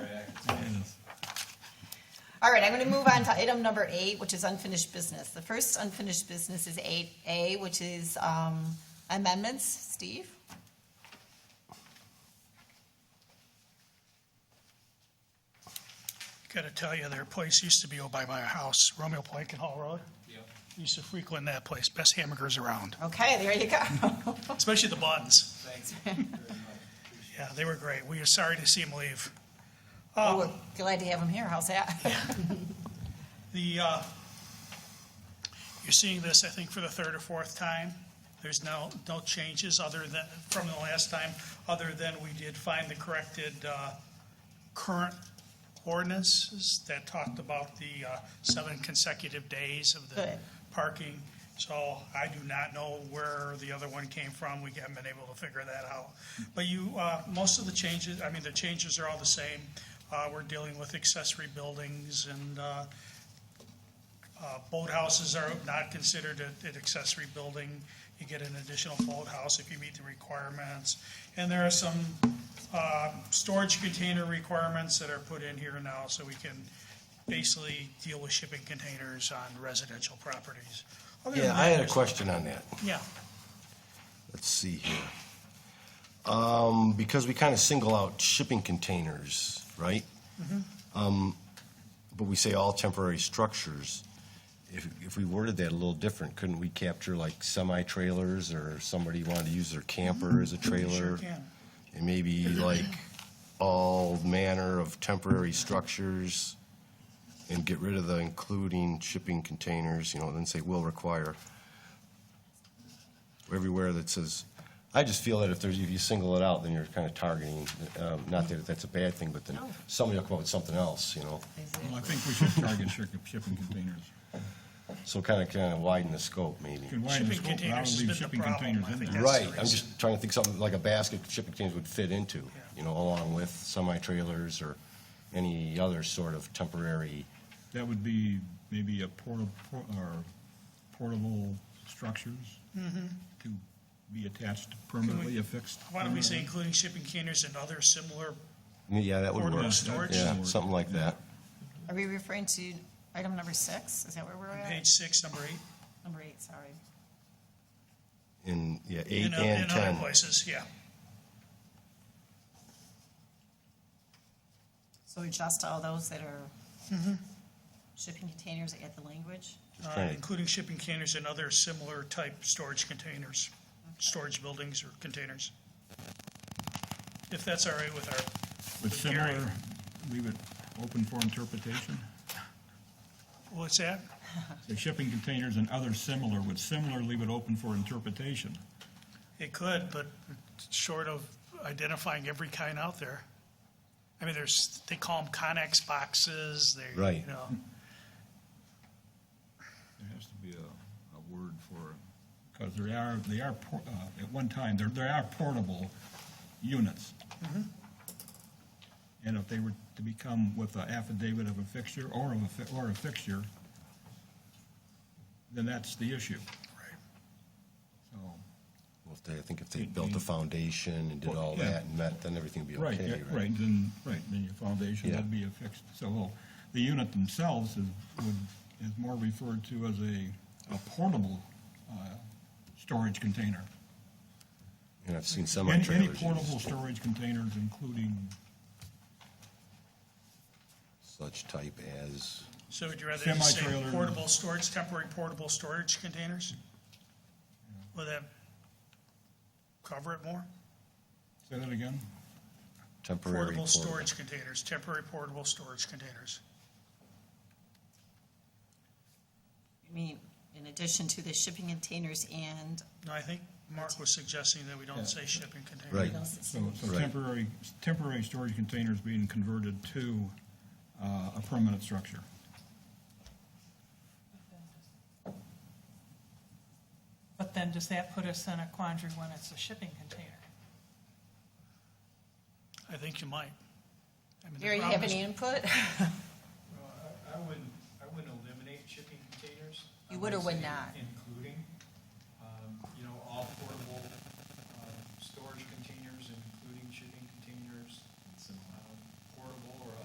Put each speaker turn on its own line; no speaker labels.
All right, I'm going to move on to item number eight, which is unfinished business. The first unfinished business is eight A, which is um, amendments. Steve?
Gotta tell you, their place used to be over by my house, Romeo Plank and Hall Road. Used to frequent that place, best hamburgers around,
Okay, there you go.
especially the buns. Yeah, they were great. We are sorry to see them leave.
Oh, we're Glad to have him here. How's that?
The, uh, you're seeing this, I think, for the third or fourth time. There's no, no changes other than, from the last time, other than we did find the corrected uh, current ordinances that talked about the uh, seven consecutive days of the
Good.
parking. So I do not know where the other one came from. We haven't been able to figure that out. But you, uh, most of the changes, I mean, the changes are all the same. Uh, We're dealing with accessory buildings and uh, uh, Boathouses are not considered a- an accessory building. You get an additional boathouse if you meet the requirements. And there are some uh, storage container requirements that are put in here now, so we can basically deal with shipping containers on residential properties. Other than
Yeah, I
that,
had a
there's-
question on that.
Yeah,
Let's see here. Um, because we kind of single out shipping containers, right? Um, But we say all temporary structures. If, if we worded that a little different, couldn't we capture like semi-trailers or somebody wanted to use their camper as a trailer?
sure can.
And maybe like all manner of temporary structures and get rid of the including shipping containers, you know, then say will require. Everywhere that says, I just feel that if there's, if you single it out, then you're kind of targeting, um, not that that's a bad thing, but then somebody will come up with something else, you know?
Well, I think we should target shipping shipping containers.
So kind of, kind of widen the scope maybe.
Can widen the
Shipping
scope, but I
containers has
would leave
been the
shipping
problem,
containers
I
in
think
there.
that's-
Right, I'm just trying to think something like a basket shipping containers would fit into, you know, along with semi-trailers or any other sort of temporary,
That would be maybe a portable, or portable structures to be attached permanently affixed.
Mm-hmm. why don't we
Mm-hmm.
say including shipping containers and other similar,
yeah, that would
Portable
work.
storage.
Yeah, something like that.
Are we referring to item number six? Is that where we're
page
at?
six, number eight?
Number eight, sorry.
In, yeah, eight
in o-
and
In other
ten.
places, yeah.
So adjust all those that are shipping containers at the language?
Uh,
Right.
including shipping containers and other similar type storage containers, storage buildings or containers. If that's all right with our,
But
with Gary.
similar, leave it open for interpretation.
What's that?
Say shipping containers and other similar, would similar leave it open for interpretation?
It could, but short of identifying every kind out there. I mean, there's, they call them Connex boxes, they, you
Right.
know,
There has to be a, a word for, because there are, they are, por- uh, at one time, there, there are portable units. And if they were to become with an affidavit of a fixture or of a, fi- or a fixture, then that's the issue. So,
Well, if they- I think if they built a foundation and did all
Yeah.
that and met, then everything would be
right, yeah,
okay, right?
right, then, right, then your foundation
Yeah.
would be affixed. So the unit themselves is, would, is more referred to as a, a portable, uh, storage container.
And I've seen
Any, any
semi-trailers
portable
use
storage containers, including,
such type as,
so would you rather just say
Semi-trailer.
portable storage, temporary portable storage containers? Would that cover it more?
say that again?
temporary
Portable
portable.
storage containers, temporary portable storage containers.
You mean, in addition to the shipping containers and
No, I think Mark was suggesting that we don't say shipping container.
Right.
those that
So,
say-
so
Right.
temporary, temporary storage containers being converted to, uh, a permanent structure.
But then does that put us in a quandary when it's a shipping container?
I think you might. I mean, the
Gary, you
problem
have
is-
any input?
Well, I I wouldn't, I wouldn't eliminate shipping containers.
You would or would
say um,
not?
uh,